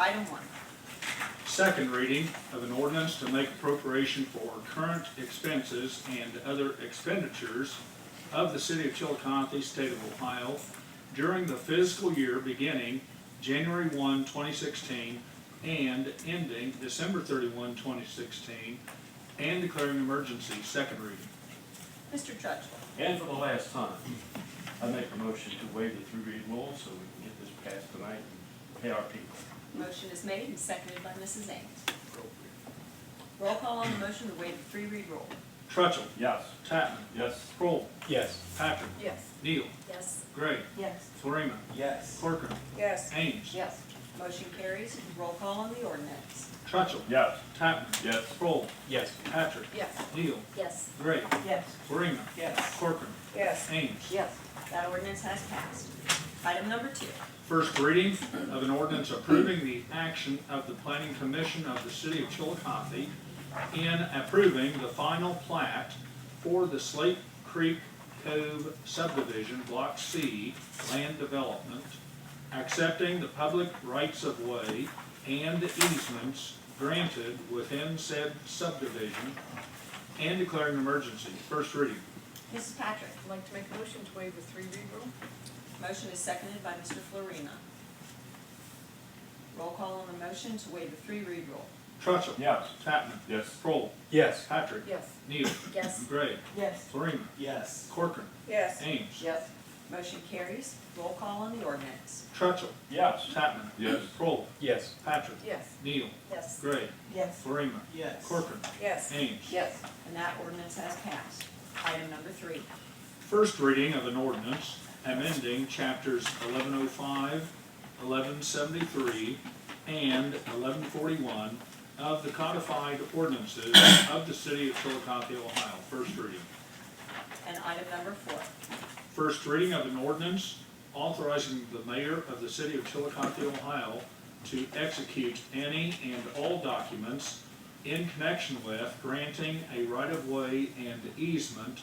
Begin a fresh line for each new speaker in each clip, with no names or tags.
Item one,
Second reading of an ordinance to make appropriation for current expenses and other expenditures of the city of Chillicothe, state of Ohio, during the fiscal year beginning January 1, 2016, and ending December 31, 2016, and declaring emergency. Second reading.
Mr. Judge.
And for the last time, I make a motion to waive the three read rule so we can get this passed tonight and pay our people.
Motion is made and seconded by Mrs. Ames. Roll call on the motion to waive the three read rule.
Truttle.
Yes.
Tatman.
Yes.
Kroll.
Yes.
Patrick.
Yes.
Neal.
Yes.
Gray.
Yes.
Florina.
Yes.
Corcoran.
Yes.
Ames.
Yes. Motion carries. Roll call on the ordinance.
Truttle.
Yes.
Tatman.
Yes.
Kroll.
Yes.
Patrick.
Yes.
Neal.
Yes.
Gray.
Yes.
Florina.
Yes.
Corcoran.
Yes.
Ames.
Yes. That ordinance has passed. Item number two,
First reading of an ordinance approving the action of the Planning Commission of the City of Chillicothe in approving the final plat for the Slate Creek Cove subdivision, Block C, land development, accepting the public rights of way and easements granted within said subdivision, and declaring an emergency. First reading.
Mrs. Patrick.
I'd like to make a motion to waive the three read rule.
Motion is seconded by Mr. Florina. Roll call on the motion to waive the three read rule.
Truttle.
Yes.
Tatman.
Yes.
Kroll.
Yes.
Patrick.
Yes.
Neal.
Yes.
Gray.
Yes.
Florina.
Yes.
Corcoran.
Yes.
Ames.
Yes. Motion carries. Roll call on the ordinance.
Truttle.
Yes.
Tatman.
Yes.
Kroll.
Yes.
Patrick.
Yes.
Neal.
Yes.
Gray.
Yes.
Florina.
Yes.
Corcoran.
Yes.
Ames.
Yes. And that ordinance has passed. Item number three,
First reading of an ordinance amending chapters 1105, 1173, and 1141 of the codified ordinances of the city of Chillicothe, Ohio. First reading.
and item number four.
First reading of an ordinance authorizing the mayor of the city of Chillicothe, Ohio to execute any and all documents in connection with granting a right-of-way and easement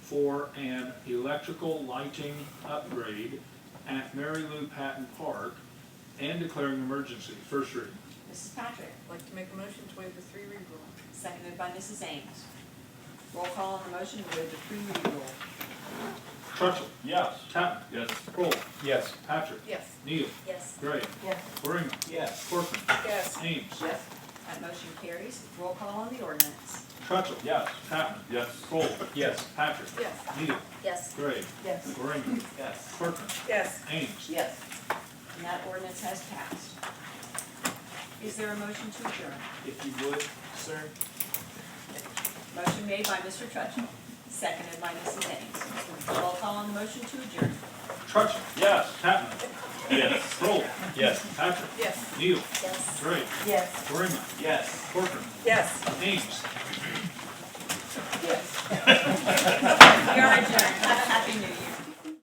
for an electrical lighting upgrade at Mary Lou Patton Park and declaring emergency. First reading.
Mrs. Patrick,
I'd like to make a motion to waive the three read rule.
seconded by Mrs. Ames. Roll call on the motion to waive the three read rule.
Truttle.
Yes.
Tatman.
Yes.
Kroll.
Yes.
Patrick.
Yes.
Neal.
Yes.
Gray.
Yes.
Waring.
Yes.
Corcoran.
Yes.
Ames.
Yes. That motion carries. Roll call on the ordinance.
Truttle.
Yes.
Tatman.
Yes.
Kroll.
Yes.
Patrick.
Yes.
Neal.
Yes.
Gray.
Yes.
Waring.
Yes.
Corcoran.
Yes.
Ames.
Yes. And that ordinance has passed. Is there a motion to adjourn?
If you would, sir.
Motion made by Mr. Trutchell, seconded by Mrs. Ames. Roll call on the motion to adjourn.
Trutchell.
Yes.
Tatman.
Yes.
Kroll.
Yes.
Patrick.
Yes.
Neal.
Yes.
Gray.
Yes.
Waring.
Yes.
Corcoran.
Yes.
Ames.
Yes. We are adjourned. Have a happy new year.